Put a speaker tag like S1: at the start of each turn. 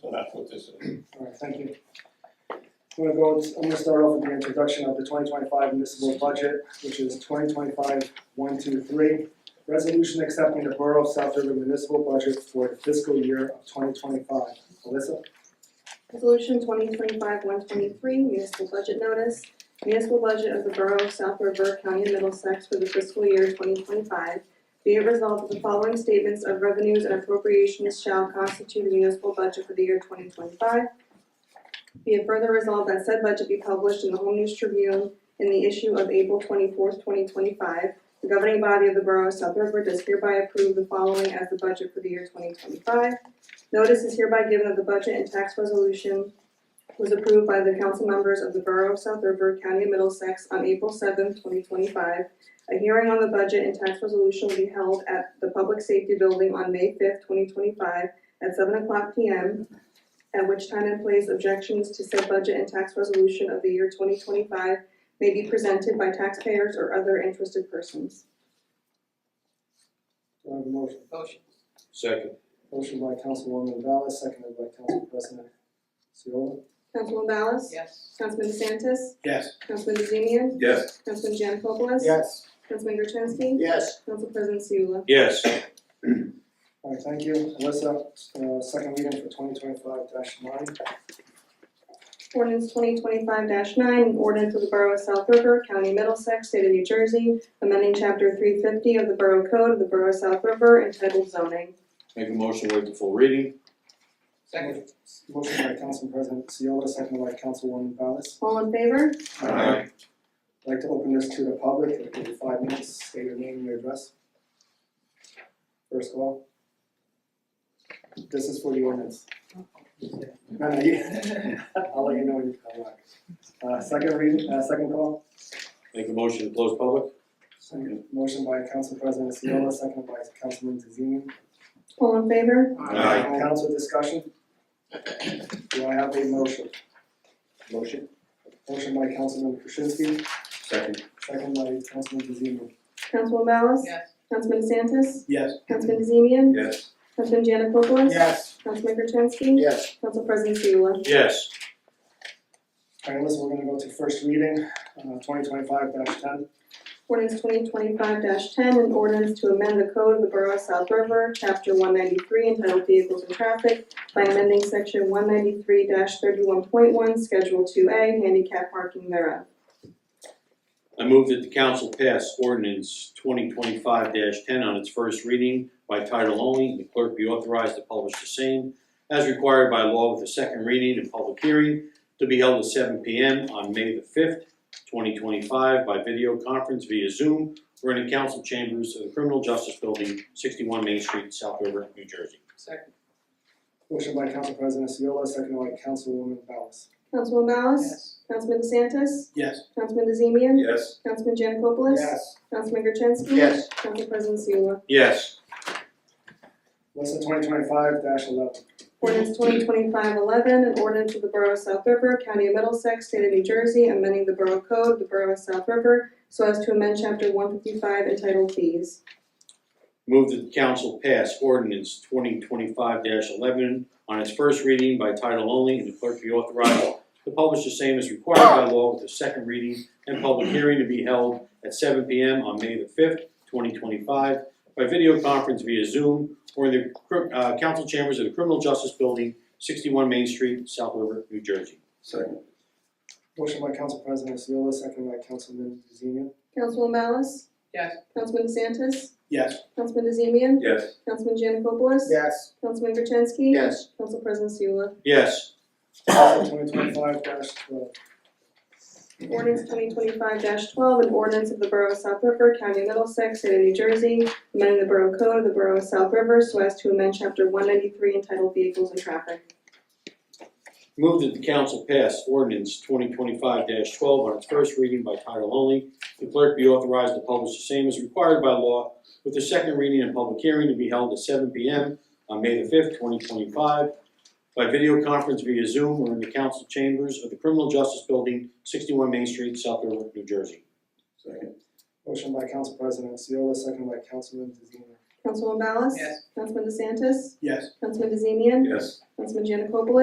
S1: So that's what this is.
S2: Alright, thank you. I'm gonna go, I'm gonna start off with the introduction of the twenty twenty-five municipal budget, which is twenty twenty-five one two three. Resolution accepting the Borough of South River municipal budget for the fiscal year of twenty twenty-five. Alyssa,
S3: Resolution twenty twenty-five one twenty-three, municipal budget notice. Municipal budget of the Borough of South River, County of Middlesex for the fiscal year twenty twenty-five. Be it resolved that the following statements of revenues and appropriations shall constitute the municipal budget for the year twenty twenty-five. Be it further resolved that said budget be published in the Home News Tribune in the issue of April twenty-fourth, twenty twenty-five. The governing body of the Borough of South River does hereby approve the following as the budget for the year twenty twenty-five. Notice is hereby given that the budget and tax resolution was approved by the council members of the Borough of South River, County of Middlesex on April seventh, twenty twenty-five. A hearing on the budget and tax resolution will be held at the Public Safety Building on May fifth, twenty twenty-five at seven o'clock P M. At which time and place objections to said budget and tax resolution of the year twenty twenty-five may be presented by taxpayers or other interested persons.
S2: do I have a motion?
S4: Motion.
S1: Second.
S2: Motion by Councilwoman Ballas, seconded by Council President Seola.
S3: Councilman Ballas?
S4: Yes.
S3: Councilman DeSantis?
S1: Yes.
S3: Councilman DeZemian?
S1: Yes.
S3: Councilman Janikopoulos?
S2: Yes.
S3: Councilman Gertenski?
S1: Yes.
S3: Council President Seula?
S1: Yes.
S2: Alright, thank you. Alyssa, uh, second reading for twenty twenty-five nine.
S3: Ordinance twenty twenty-five nine, an ordinance of the Borough of South River, County of Middlesex, State of New Jersey, amending chapter three fifty of the Borough Code of the Borough of South River entitled zoning.
S5: Make a motion, wait the full reading?
S4: Second.
S2: Motion by Council President Seola, seconded by Councilwoman Ballas.
S3: All in favor?
S5: Aye.
S2: I'd like to open this to the public, if you give five minutes, state your name and your address. First call. This is for the ordinance. No, no, you, I'll let you know when you come back. Uh, second reading, uh, second call,
S5: Make a motion to close public?
S2: Second. motion by Council President Seola, second by Councilman DeZemian.
S3: All in favor?
S5: Aye.
S2: Council discussion? Do I have a motion? Motion. Motion by Councilman Krasinski,
S5: Second.
S2: second by Councilman DeZemian.
S3: Councilman Ballas?
S4: Yes.
S3: Councilman DeSantis?
S5: Yes.
S3: Councilman DeZemian?
S5: Yes.
S3: Councilman Janikopoulos?
S2: Yes.
S3: Councilman Gertenski?
S2: Yes.
S3: Council President Seula?
S5: Yes.
S2: Alright, listen, we're gonna go to first reading, uh, twenty twenty-five ten.
S3: Ordinance twenty twenty-five ten, an ordinance to amend the code of the Borough of South River, chapter one ninety-three entitled Vehicles and Traffic by amending section one ninety-three thirty-one point one, schedule two A, handicap parking thereof.
S5: I move that the council pass ordinance twenty twenty-five ten on its first reading by title only, and the clerk be authorized to publish the same as required by law with a second reading and public hearing to be held at seven P M on May the fifth, twenty twenty-five by video conference via Zoom or in the council chambers of the Criminal Justice Building, sixty-one Main Street, South River, New Jersey.
S4: Second.
S2: Motion by Council President Seola, second by Councilwoman Ballas.
S3: Councilman Ballas?
S4: Yes.
S3: Councilman DeSantis?
S5: Yes.
S3: Councilman DeZemian?
S5: Yes.
S3: Councilman Janikopoulos? Councilman Gertenski?
S5: Yes.
S3: Council President Seula?
S5: Yes.
S2: Listen, twenty twenty-five eleven.
S3: Ordinance 2025-11, an ordinance of the Borough of South River, County of Middlesex, State of New Jersey, amending the Borough Code, of the Borough of South River, so as to amend chapter one fifty-five entitled fees.
S5: Move that the council pass ordinance twenty twenty-five eleven on its first reading by title only and the clerk be authorized to publish the same as required by law with a second reading and public hearing to be held at seven P M on May the fifth, twenty twenty-five by video conference via Zoom or in the cr- uh, council chambers of the Criminal Justice Building, sixty-one Main Street, South River, New Jersey.
S1: Second.
S2: Motion by Council President Seola, second by Councilman DeZemian.
S3: Councilman Ballas?
S4: Yes.
S3: Councilman DeSantis?
S2: Yes.
S3: Councilman DeZemian?
S1: Yes.
S3: Councilman Janikopoulos?
S2: Yes.
S3: Councilman Gertenski?
S1: Yes.
S3: Council President Seula?
S5: Yes.
S2: Twenty twenty-five twelve.
S3: Ordinance twenty twenty-five twelve, an ordinance of the Borough of South River, County of Middlesex, State of New Jersey, amending the Borough Code of the Borough of South River so as to amend chapter one ninety-three entitled Vehicles and Traffic.
S5: Move that the council pass ordinance twenty twenty-five twelve on its first reading by title only. The clerk be authorized to publish the same as required by law with the second reading and public hearing to be held at seven P M on May the fifth, twenty twenty-five by video conference via Zoom or in the council chambers of the Criminal Justice Building, sixty-one Main Street, South River, New Jersey.
S1: Second.
S2: Motion by Council President Seola, second by Councilman DeZemian.
S3: Councilman Ballas?
S4: Yes.
S3: Councilman DeSantis?
S2: Yes.
S3: Councilman DeZemian?
S1: Yes.
S3: Councilman Janikopoulos?